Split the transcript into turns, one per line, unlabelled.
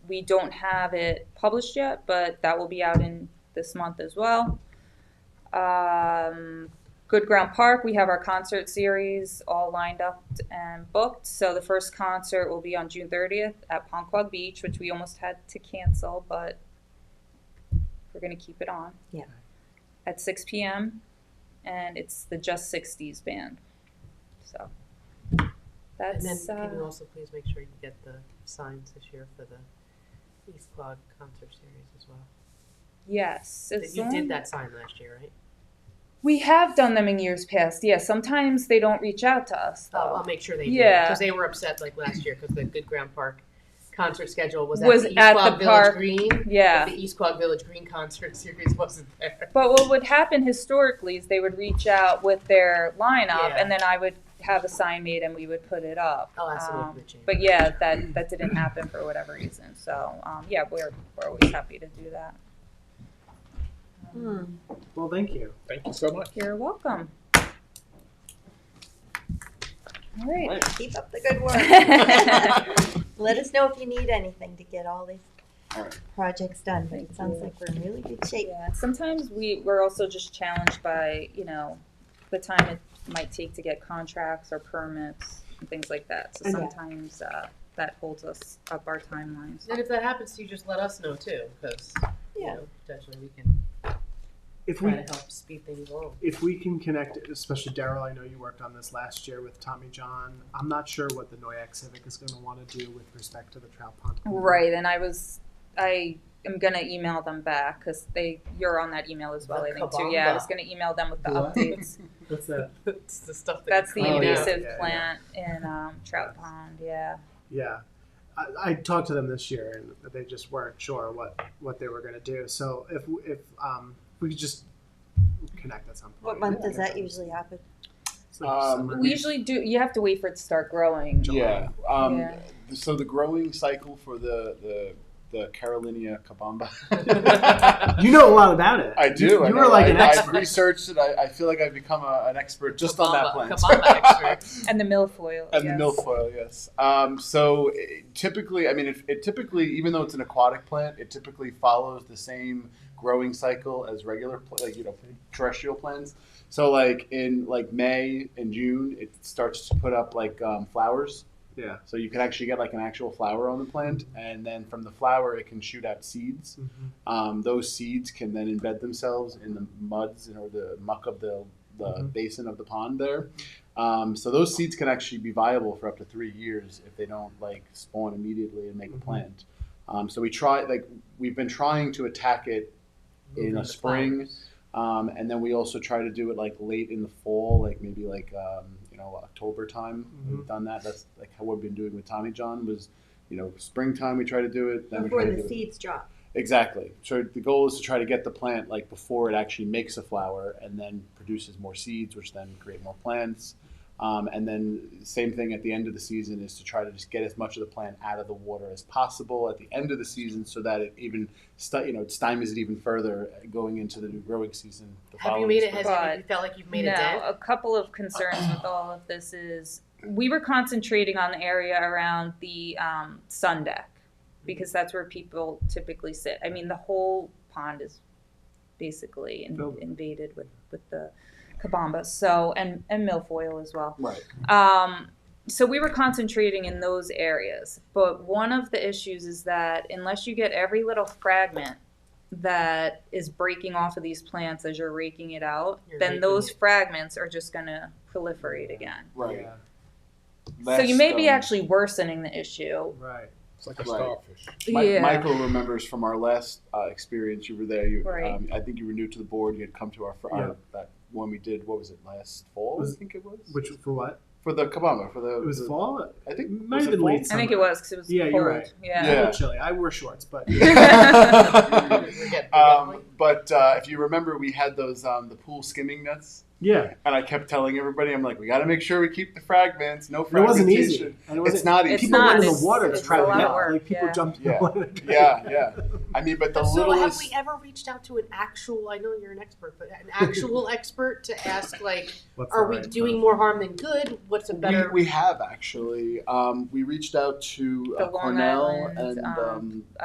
we don't have it published yet, but that will be out in this month as well. Um, Good Ground Park, we have our concert series all lined up and booked. So the first concert will be on June 30th at Ponquag Beach, which we almost had to cancel, but we're going to keep it on.
Yeah.
At 6 p.m. And it's the Just 60s band. So
And
that's.
then can you
uh,
also please make sure you get the signs this year for the East Quad concert series as well?
yes. as
You
long-
did that sign last year, right?
We have done them in years past. Yeah, sometimes they don't reach out to us though.
I'll, I'll make sure they do.
Oh. Yeah.
Because they were upset like last year because the Good Ground Park concert schedule was at
Was
the East
at
Quad
the
Village
park.
Green. but
yeah.
The East Quad Village Green concert series wasn't there.
But what would happen historically is they would reach out with their lineup,
Yeah. Oh,
and then I would have a sign made, and we would put it up.
I'll ask them
Um,
if they change.
but yeah, that that didn't happen for whatever reason. So um, yeah, we're we're always happy to do that.
Hmm.
Well, thank you. Thank you so much.
You're welcome. All right.
Keep up the good work. Let us know if you need anything to get all
All
these
right.
projects done. but
Thank
It sounds
you.
like we're in really good shape.
Yeah, sometimes we, we're also just challenged by, you know, the time it might take to get contracts or permits and things like that. So
Okay.
sometimes, uh, that holds us up our timelines.
And if that happens to you, just let us know too, because, you
Yeah.
know, potentially we can
If
try
we
to help speed things along.
if we can connect, especially Daryl, I know you worked on this last year with Tommy John. I'm not sure what the Noyak Civic is going to want to do with respect to the trout pond. cleanup.
Right, and I was, I am gonna email them back, cause they, you're on that email as well, I think, too. Yeah, I was gonna email them with the
What?
updates.
What's that?
It's the stuff that.
That's
you
the
Oh,
clean
yeah.
out.
invasive
yeah, yeah.
plant in, um, Trout Pond, yeah.
Yeah. I, I talked to them this year and they just weren't sure what, what they were going to do. So if, if um, we could just connect at some
What
point.
month does that usually happen?
It's like
Um,
summer.
We usually do, you have to wait for it to start growing.
July.
Yeah. Um,
Yeah.
th- So the growing cycle for the the, the Carolinia cabamba.
You know a lot about it.
I do.
You, you
I
were
know.
like
I,
an
I've
expert.
researched it. I, I feel like I've become a, an expert just on that
Kabamba-
plant.
kabamba expert.
And the milfoil,
And
yes.
the milfoil, yes. Um, so it, typically, I mean, it, it typically, even though it's an aquatic plant, it typically follows the same growing cycle as regular, pl- like you know, terrestrial plants. So like in like May and June, it starts to put up like um, flowers.
Yeah.
So you can actually get like an actual flower on the plant, and then from the flower, it can shoot out seeds.
Mhm.
Um, those seeds can then embed themselves in the muds and- or the muck of the, the
Mhm.
basin of the pond there. Um, so those seeds can actually be viable for up to three years if they don't like spawn immediately and make
Mhm.
a plant. Um, so we try like we've been trying to attack it in
The
a spring,
flowers.
um, and then we also try to do it like late in the fall, like maybe like um, you know October time. We've done that. That's like how we've been doing with Tommy John was, you know, springtime we try to do it. Then we
Before
try to
the
do it.
seeds drop.
Exactly. So the goal is to try to get the plant like before it actually makes a flower and then produces more seeds, which then create more plants. Um, and then same thing at the end of the season is to try to just get as much of the plant out of the water as possible at the end of the season, so that it even sti you know it stymies it even further going into the new growing season. The
Have you
following
made it,
spring.
has, have you felt like you've made a
no,
dent?
a couple of concerns with all of this is we were concentrating on the area around the um, sun deck because that's where people typically sit. I mean, the whole pond is basically in,
Filled with-
invaded with, with the kabamba, so and and milfoil as well.
Right.
Um, so we were concentrating in those areas, but one of the issues is that unless you get every little fragment that is breaking off of these plants as you're raking it out,
You're
then
raking
those
it.
fragments are just going to proliferate again.
Right.
Yeah.
so you
Last,
may be
um,
actually worsening the issue.
Right.
It's like a
Right.
starfish.
Mi- Michael remembers from our last uh, experience. You were there. You,
Right.
um, I think you were new to the board. You had come to our, fr-
Yeah.
our that one we did. What was it last fall?
Was-
I think it was.
Which for what?
for the Kabama for the
It was
the-
fall.
I think
Might
was
have
it
been
fall?
late
I think it
summer.
was because it was
Yeah,
cold.
you're right.
Yeah.
A
Yeah.
little chilly. I wore shorts, but
We get- we
um,
get-
but uh, if you remember, we had those um, the pool skimming nets,
yeah,
and I kept telling everybody, I'm like, we got to make sure we keep the fragments. No
and it wasn't
fragmentation.
easy. And it wasn't,
It's not easy.
It's
people
not.
went in
It's-
the water to
it's
try
a
to
lot
get
of work,
Like people
yeah.
jumped in
Yeah.
the water. to try
Yeah,
to-
yeah. I mean, but the
So have
littlest.
we ever reached out to an actual, I know you're an expert, but an actual expert to ask like,
What's
are
the
we
right
doing
time?
more harm than good? What's a
We,
better?
we have actually. Um, we reached out to
The
uh,
Long
Cornell
Island,
and
um,
um,